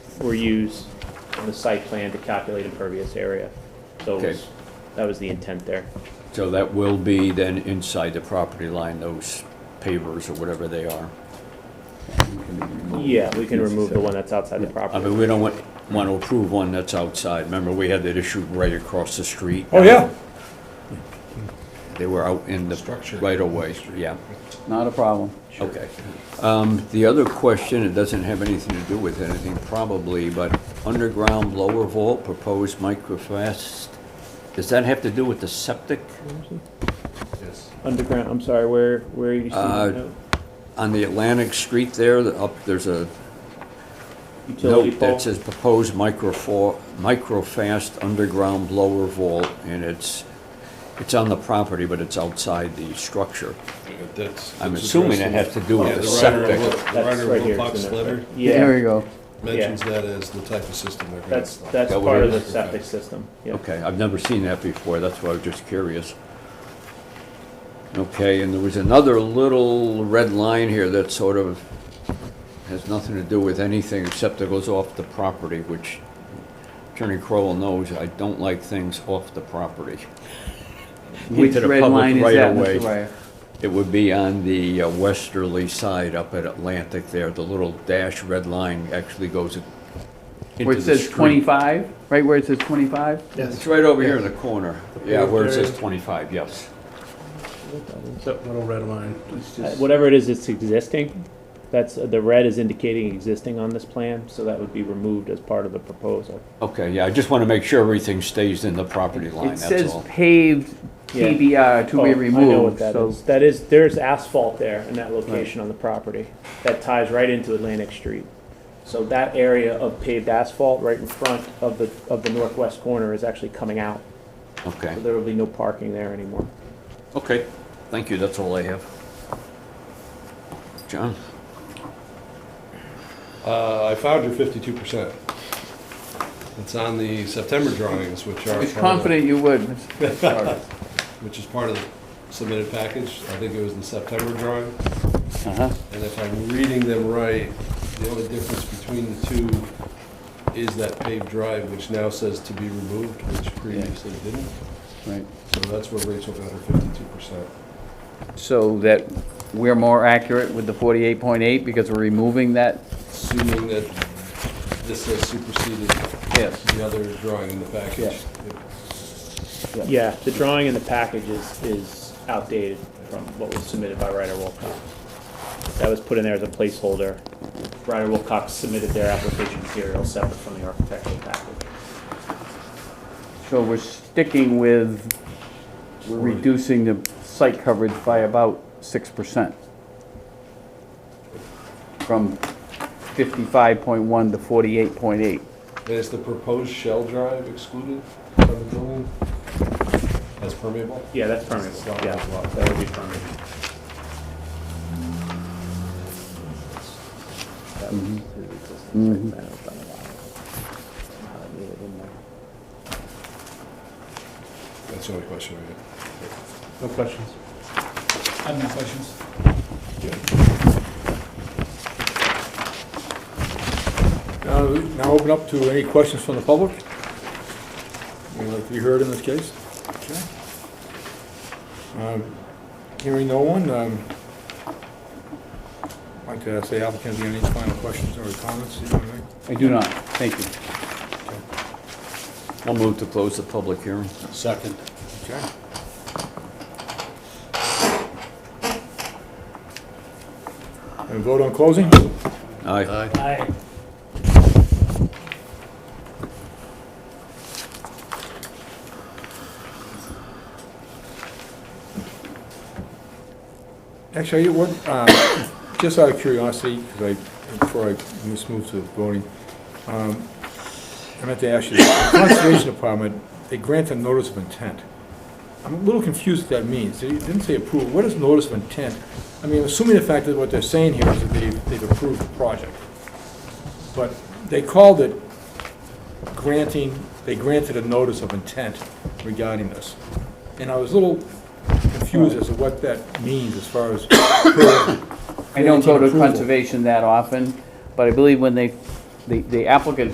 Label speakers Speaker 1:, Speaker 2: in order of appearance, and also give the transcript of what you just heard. Speaker 1: were used on the site plan to calculate impervious area. So it
Speaker 2: Okay.
Speaker 1: was, that was the intent there.
Speaker 2: So that will be then inside the property line, those pavers or whatever they are.
Speaker 1: Yeah, we can remove the one that's outside the
Speaker 2: I
Speaker 1: property.
Speaker 2: mean, we don't want, want to approve one that's outside. Remember, we had that issue right across the street.
Speaker 3: Oh, yeah.
Speaker 2: They were out in the right of way, yeah,
Speaker 4: Not a problem.
Speaker 2: okay. Um, the other question, it doesn't have anything to do with anything probably, but underground lower vault proposed microfast. Does that have to do with the septic?
Speaker 1: Underground, I'm sorry, where, where are you seeing
Speaker 2: Uh,
Speaker 1: that? note?
Speaker 2: On the Atlantic Street there, the- up, there's a
Speaker 1: Utility
Speaker 2: note
Speaker 1: pole?
Speaker 2: that says proposed microfo- microfast underground lower vault, and it's, it's on the property, but it's outside the structure.
Speaker 3: That's-
Speaker 2: I'm
Speaker 3: that's
Speaker 2: assuming it
Speaker 3: addressing-
Speaker 2: has to do with
Speaker 3: Yeah,
Speaker 2: the
Speaker 3: writer of
Speaker 2: septic.
Speaker 3: Wil- The
Speaker 1: That's
Speaker 3: writer
Speaker 1: right
Speaker 3: of
Speaker 1: here,
Speaker 3: Wilcox
Speaker 1: isn't it?
Speaker 3: letter
Speaker 4: There you
Speaker 1: Yeah,
Speaker 4: go.
Speaker 3: mentions that as the type of system they're gonna
Speaker 1: that's,
Speaker 3: install.
Speaker 1: that's
Speaker 2: That what
Speaker 1: part
Speaker 2: it
Speaker 1: of the
Speaker 2: is?
Speaker 1: septic system, yeah.
Speaker 2: Okay, I've never seen that before, that's why I was just curious. Okay, and there was another little red line here that sort of has nothing to do with anything except it goes off the property, which Attorney Crowell knows, I don't like things off the property.
Speaker 4: Which
Speaker 2: Into the
Speaker 4: red
Speaker 2: public
Speaker 4: line is that,
Speaker 2: right-of-way.
Speaker 4: Mr. Ryer?
Speaker 2: It would be on the uh, westerly side up at Atlantic there, the little dash red line actually goes into the street.
Speaker 4: Where it says 25, right where it says 25?
Speaker 2: It's right over here in the corner, yeah, where it says 25, yes.
Speaker 3: That little red line.
Speaker 1: Uh, Whatever it is, it's existing. That's, the red is indicating existing on this plan, so that would be removed as part of the proposal.
Speaker 2: Okay, yeah, I just want to make sure everything stays in the property line,
Speaker 4: It
Speaker 2: that's
Speaker 4: says
Speaker 2: all.
Speaker 4: paved
Speaker 1: Yeah.
Speaker 4: TBR to
Speaker 1: Oh,
Speaker 4: be
Speaker 1: I know what
Speaker 4: removed,
Speaker 1: that
Speaker 4: so
Speaker 1: is. That is, there's asphalt there in that location on the property. That ties right into Atlantic Street. So that area of paved asphalt right in front of the, of the northwest corner is actually coming out.
Speaker 2: Okay,
Speaker 1: So there will be no parking there anymore.
Speaker 2: okay, thank you, that's all I have. John?
Speaker 3: Uh, I found your fifty-two percent. It's on the September drawings, which
Speaker 4: I
Speaker 3: are.
Speaker 4: was
Speaker 3: part of the-
Speaker 4: confident you would, Mr.
Speaker 1: Uh-huh.
Speaker 4: Jarvis.
Speaker 3: Which is part of the submitted package. I think it was the September drawing.
Speaker 4: Uh-huh.
Speaker 3: And if I'm reading them right, the only difference between the two is that paved drive, which now says to be removed, which previously didn't.
Speaker 4: Right.
Speaker 3: So that's where Rachel got her fifty-two percent.
Speaker 4: So that we're more accurate with the 48.8 because we're removing that?
Speaker 3: Assuming that this has superseded
Speaker 4: Yes.
Speaker 3: the other drawing in the package.
Speaker 1: Yeah, the drawing in the package is, is outdated from what was submitted by Ryder Wilcox. That was put in there as a placeholder. Ryder Wilcox submitted their application material separate from the architectural package.
Speaker 4: So we're sticking with we're reducing the site coverage by about 6%. From 55.1 to 48.8.
Speaker 3: And is the proposed shell drive excluded from the building as permeable?
Speaker 1: Yeah, that's permanent,
Speaker 3: It's not
Speaker 1: yeah,
Speaker 3: a lot.
Speaker 1: that would be permanent.
Speaker 3: Mm-hmm. That's the only question I have.
Speaker 5: No questions.
Speaker 6: I have no questions.
Speaker 5: Now, Uh, now open up to any questions from the public? Would like to be heard in this case? Okay. Um, Hearing no one, um, I'd like to ask the applicant, do you have any final questions or comments? You want to make?
Speaker 4: I do not, thank you.
Speaker 2: I'll move to close the public hearing.
Speaker 5: Second. Okay. And vote on closing?
Speaker 2: Aye.
Speaker 5: Actually, what, uh, just out of curiosity, 'cause I, before I just move to voting, um, I meant to ask you, the Conservation Department, they grant a notice of intent. I'm a little confused what that means. They didn't say approve. What is notice of intent? I mean, assuming the fact that what they're saying here is that they've, they've approved the project. But they called it granting, they granted a notice of intent regarding this. And I was a little confused as to what that means as far as
Speaker 4: I don't go
Speaker 5: Granting
Speaker 4: to
Speaker 5: approval.
Speaker 4: conservation that often, but I believe when they, the the applicant